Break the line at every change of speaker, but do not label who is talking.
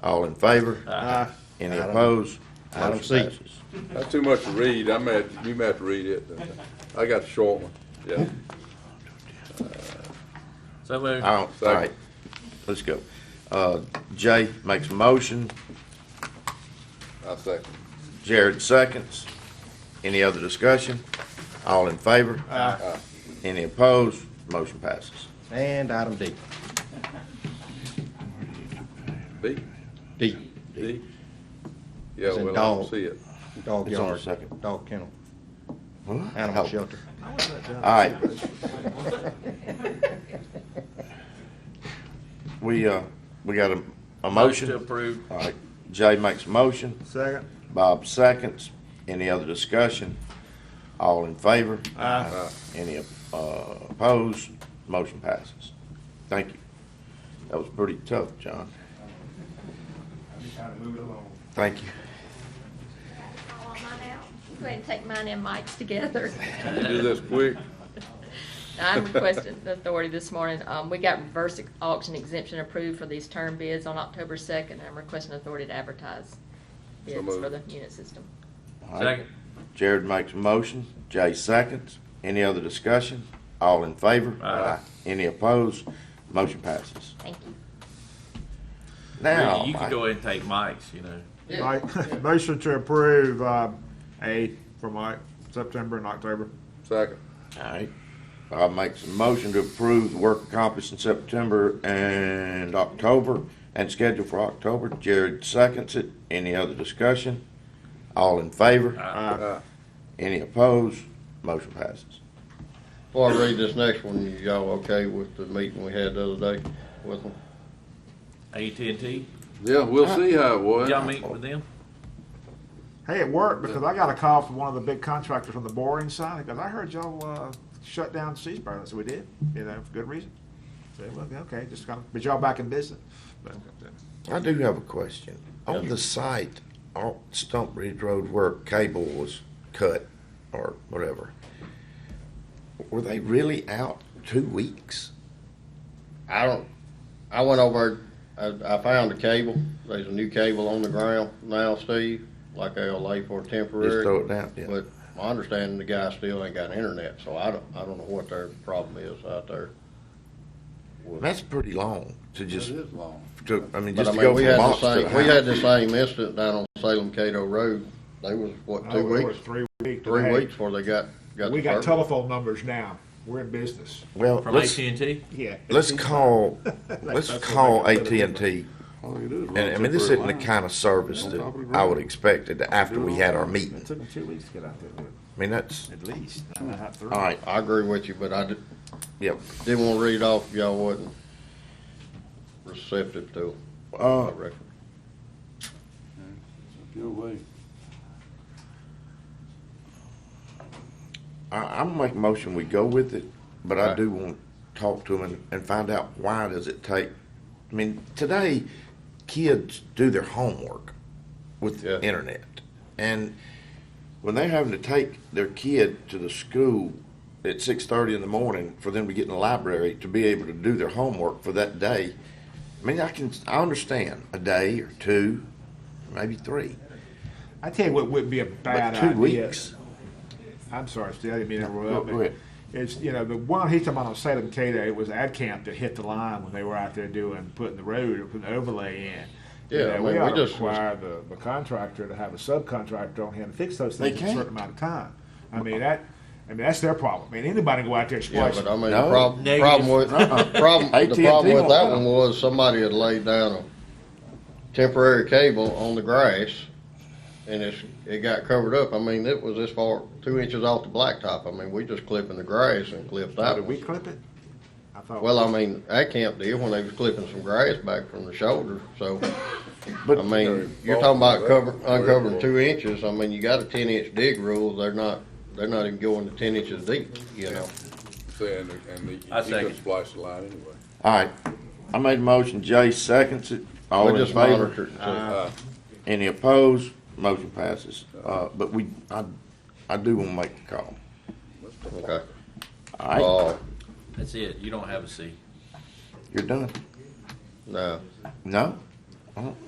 All in favor?
Uh,
Aye.
Any
I don't-
opposed?
I don't
Motion
see.
passes.
That's too much to read. I may, have- you may have to read it. I got the short one. Yeah.
So moved.
All
Second.
right, let's go. Uh, Jay makes a motion,
I second.
Jared seconds. Any other discussion? All in favor?
uh,
Aye.
Any opposed? Motion passes.
And item D.
B?
D,
D? Yeah,
It's in
well, I don't
dog.
see it.
dog
It's on the
yard,
second.
dog kennel,
Oh.
animal shelter.
All right. We, uh, we got a, a
Motion
motion.
to approve.
All right, Jay makes a motion,
Second.
Bob seconds. Any other discussion? All in favor?
Aye.
Any uh, opposed? Motion passes. Thank you. That was pretty tough, John. Thank you.
I'll want mine out. Go ahead and take mine and Mike's together.
You do this quick.
I'm requesting the authority this morning, um, we got reverse auction exemption approved for these term bids on October second, and I'm requesting authority to advertise
So
bids
moved.
for the unit system.
All right.
Second.
Jared makes a motion, Jay seconds. Any other discussion? All in favor?
Aye.
Any opposed? Motion passes.
Thank you.
Now,
Really, You can
Mike,
go ahead and take Mike's, you know.
Mike, motion to approve, uh, A for Mike, September and October.
Second.
all right. Bob makes a motion to approve the work accomplished in September and October and scheduled for October. Jared seconds it. Any other discussion? All in favor?
Aye.
Any opposed? Motion passes.
Before I read this next one, y'all okay with the meeting we had the other day with them?
AT&T,
Yeah, we'll see how it was.
y'all meet with them?
Hey, it worked because I got a call from one of the big contractors from the boring side because I heard y'all, uh, shut down Seaburn. I said, we did, you know, for good reason. So, well, okay, just kind of, but y'all back in business. But,
I do have a question. On the site, on Stump Ridge Road where cable was cut or whatever, were they really out two weeks?
I don't, I went over, I, I found a cable, there's a new cable on the ground now, Steve, like they'll lay for
Just
temporary.
throw it down, yeah.
But my understanding, the guy still ain't got internet, so I don't, I don't know what their problem is out there.
That's pretty long to
It
just,
is long.
to, I mean,
But
just
I
to go
mean, we had
from
the
box to
same, we had
house.
the same incident down on Salem Cato Road, they was, what,
Oh,
two
it was
weeks,
Three weeks.
three
Hey,
weeks before they got, got
We
the
got
first.
telephone numbers now. We're in business.
Well,
From
let's,
AT&T?
Yeah.
let's call, let's
That's what
call
they cut it.
AT&T.
All they do is run
And I mean, this
temporary
isn't the
lines.
kind of service
On
that
top of the
I
road.
would expect it after we had our meeting.
took them two weeks to get out there,
I mean, that's,
at least. All
all right,
I agree with you, but I did,
yep.
Didn't want to read off if y'all wasn't receptive to it, I
Uh,
reckon.
Your way.
I, I'm make a motion, we go with it, but I
Okay.
do want to talk to them and, and find out why does it take, I mean, today, kids do their homework with
Yeah.
the internet. And when they're having to take their kid to the school at six thirty in the morning for them to get in the library to be able to do their homework for that day, I mean, I can, I understand a day or two, maybe three,
I tell you what would be a
but
bad
two
idea.
weeks.
I'm sorry, Steve, I didn't mean to
Go-
interrupt.
go ahead.
It's, you know, the one he's talking about on Salem Cato, it was ad camp that hit the line when they were out there doing, putting the road, or putting the overlay in. You
Yeah,
know,
I mean,
we
we
ought to
just-
require the, the contractor to have a subcontractor on hand to fix those things
They
in a
can't.
certain amount of time. I mean, that, I mean, that's their problem. I mean, anybody can go out there and
Yeah,
splice.
but I mean,
No.
the problem,
Negative.
problem with,
Uh-uh.
problem, the
AT&T
problem with
won't
that
let 'em.
one was somebody had laid down a temporary cable on the grass and it's, it got covered up. I mean, it was this far, two inches off the blacktop. I mean, we just clipping the grass and clipped
Oh,
that
Did we
one.
clip it? I thought-
Well, I mean, that camp did when they was clipping some grass back from the shoulder, so.
But-
I mean, you're talking about cover, uncovering two inches, I mean, you got a ten inch dig rule, they're not, they're not even going to ten inches deep, you know?
Saying, and he, he
I
could
second.
splice the line anyway.
All right, I made a motion, Jay seconds it, all
We
in
just
favor.
monitor it.
Uh,
Any opposed, motion passes, uh, but we, I, I do wanna make the call,
Okay.
all right,
Uh,
That's it, you don't have a C.
you're done,
no.
no?